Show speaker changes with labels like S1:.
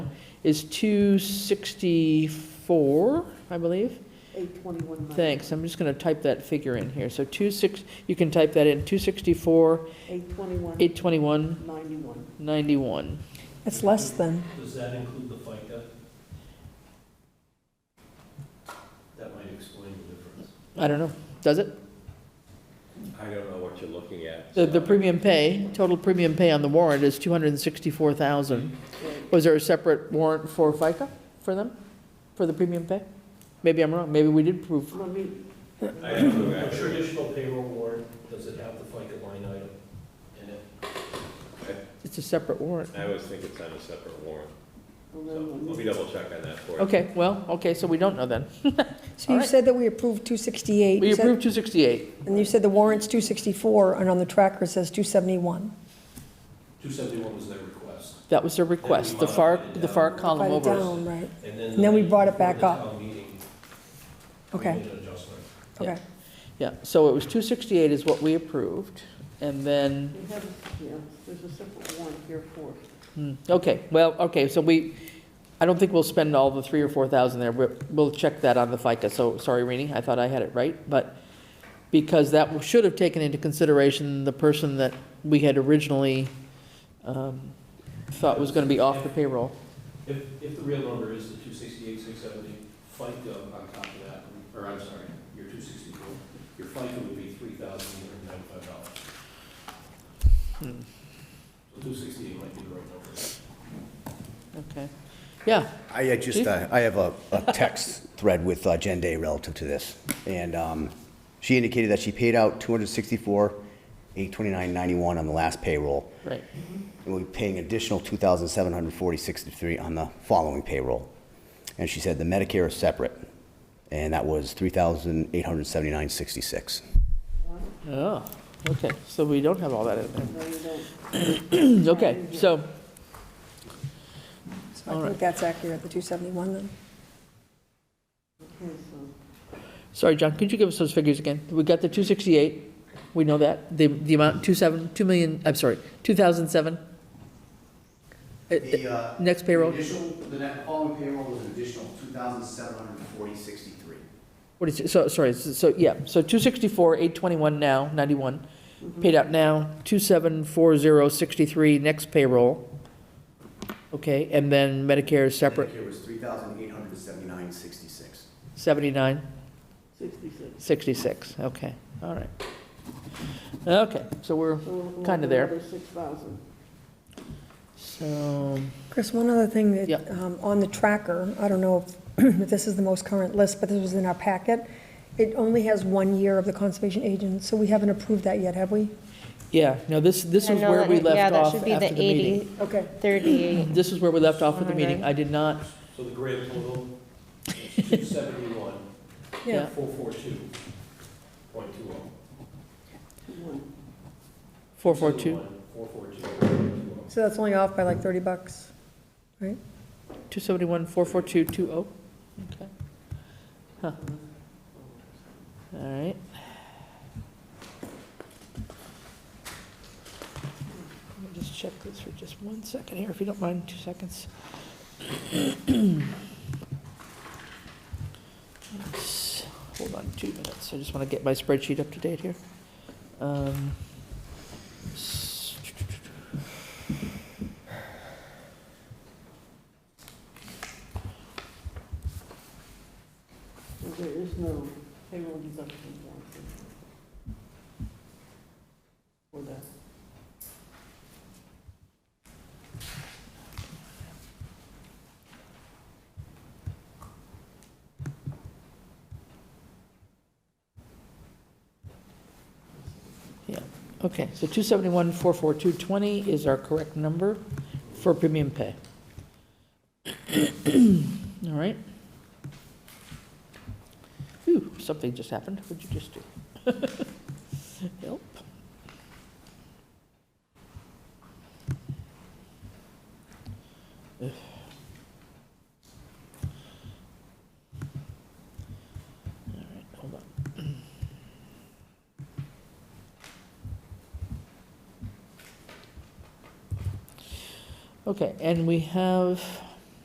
S1: is 264, I believe.
S2: Eight twenty-one Monday.
S1: Thanks, I'm just going to type that figure in here. So 26, you can type that in, 264,
S2: Eight twenty-one,
S1: 821,
S2: ninety-one.
S1: 91.
S3: It's less than,
S4: Does that include the FICA? That might explain the difference.
S1: I don't know, does it?
S5: I don't know what you're looking at.
S1: The, the premium pay, total premium pay on the warrant is 264,000. Was there a separate warrant for FICA for them, for the premium pay? Maybe I'm wrong, maybe we did prove,
S2: Let me,
S5: I don't know
S4: A
S5: actually.
S4: traditional payroll warrant, does it have the FICA line item in it?
S1: it's a separate warrant.
S5: I always think it's on a separate warrant, so let
S2: let
S5: me
S2: me-
S5: double check on that for you.
S1: Okay, well, okay, so we don't know then.
S3: so
S1: All
S3: you
S1: right.
S3: said that we approved 268.
S1: We
S3: you said-
S1: approved 268,
S3: And you said the warrant's 264, and on the tracker it says 271.
S4: 271 was their request.
S1: that was their request, the far, the far column
S3: Divide it
S1: over.
S3: down, right,
S4: And then.
S3: And then we brought it
S4: before
S3: back
S4: the
S3: up.
S4: town meeting, we
S3: okay,
S4: made an adjustment.
S1: Yeah.
S3: okay.
S1: Yeah, so it was 268 is what we approved, and then,
S2: we have, yeah, there's a separate warrant here for,
S1: hmm, okay, well, okay, so we, I don't think we'll spend all the three or 4,000 there, we'll, we'll check that on the FICA, so, sorry, Rini, I thought I had it right, but, because that should have taken into consideration the person that we had originally um, thought was going to be off the payroll.
S4: If, if the real number is the 268, 670, FICA on top of that, or I'm sorry, your 264, your FICA would be $3,895.
S1: Hmm.
S4: So 268 might be the right number.
S1: Okay, yeah,
S6: I uh, just,
S1: Chief?
S6: uh, I have a a text thread with uh, Jen Day relative to this. And um, she indicated that she paid out 264, 829.91 on the last payroll.
S1: right, Mm-hmm.
S6: And we'll be paying additional 2,746.63 on the following payroll. And she said the Medicare is separate. And that was 3,879.66.
S1: oh, okay, so we don't have all that in there.
S2: no, you don't.
S1: Okay, so,
S3: So
S1: All
S3: I
S1: right.
S3: think that's accurate, the 271 then.
S2: Okay, so,
S1: sorry, John, could you give us those figures again? We got the 268, we know that, the, the amount, 27, 2 million, I'm sorry, 2007? Uh,
S7: The, uh,
S1: Next payroll,
S7: The initial, the net following payroll was an additional two thousand seven hundred and forty sixty-three.
S1: what is, it? so, sorry, so, so, yeah, so 264, 821 now, 91, paid out now, 274063, next payroll. Okay, and then Medicare is separate,
S7: Medicare was three thousand eight hundred and seventy-nine sixty-six.
S1: 79?
S2: sixty-six.
S1: 66, okay, all right. Okay, so we're,
S2: So we'll- we'll
S1: Kinda
S2: have
S1: there.
S2: another 6,000.
S1: so,
S3: Chris, one other thing
S1: Yeah.
S3: that, um, on the tracker, I don't know if this is the most current list, but this was in our packet. It only has one year of the conservation agent, so we haven't approved that yet, have we?
S1: yeah, no, this, this
S8: I
S1: is
S8: know
S1: where
S8: that-
S1: we left off
S8: Yeah,
S1: after
S8: that should
S1: the
S8: be the
S1: meeting.
S8: 80,
S3: Okay.
S8: 38.
S1: This is where we left off with the meeting, I
S8: Wondering.
S1: did not,
S4: So the grand total is 271,
S1: Yeah.
S4: 442.20. oh.
S2: One.
S1: 442,
S4: 442.20.
S3: So that's only off by like 30 bucks.
S1: 271, 442, 20, okay. Huh. All right, let me just check this for just one second here, if you don't mind, two seconds. Let's- Hold on two minutes, I just want to get my spreadsheet up to date here. Um, s-
S2: So there is no payroll deduction warrant. For that.
S1: Okay, so 271, 44220 is our correct number for premium pay. All right. Ooh, something just happened. What'd you just do? Help. Ugh. All right, hold on. Okay, and we have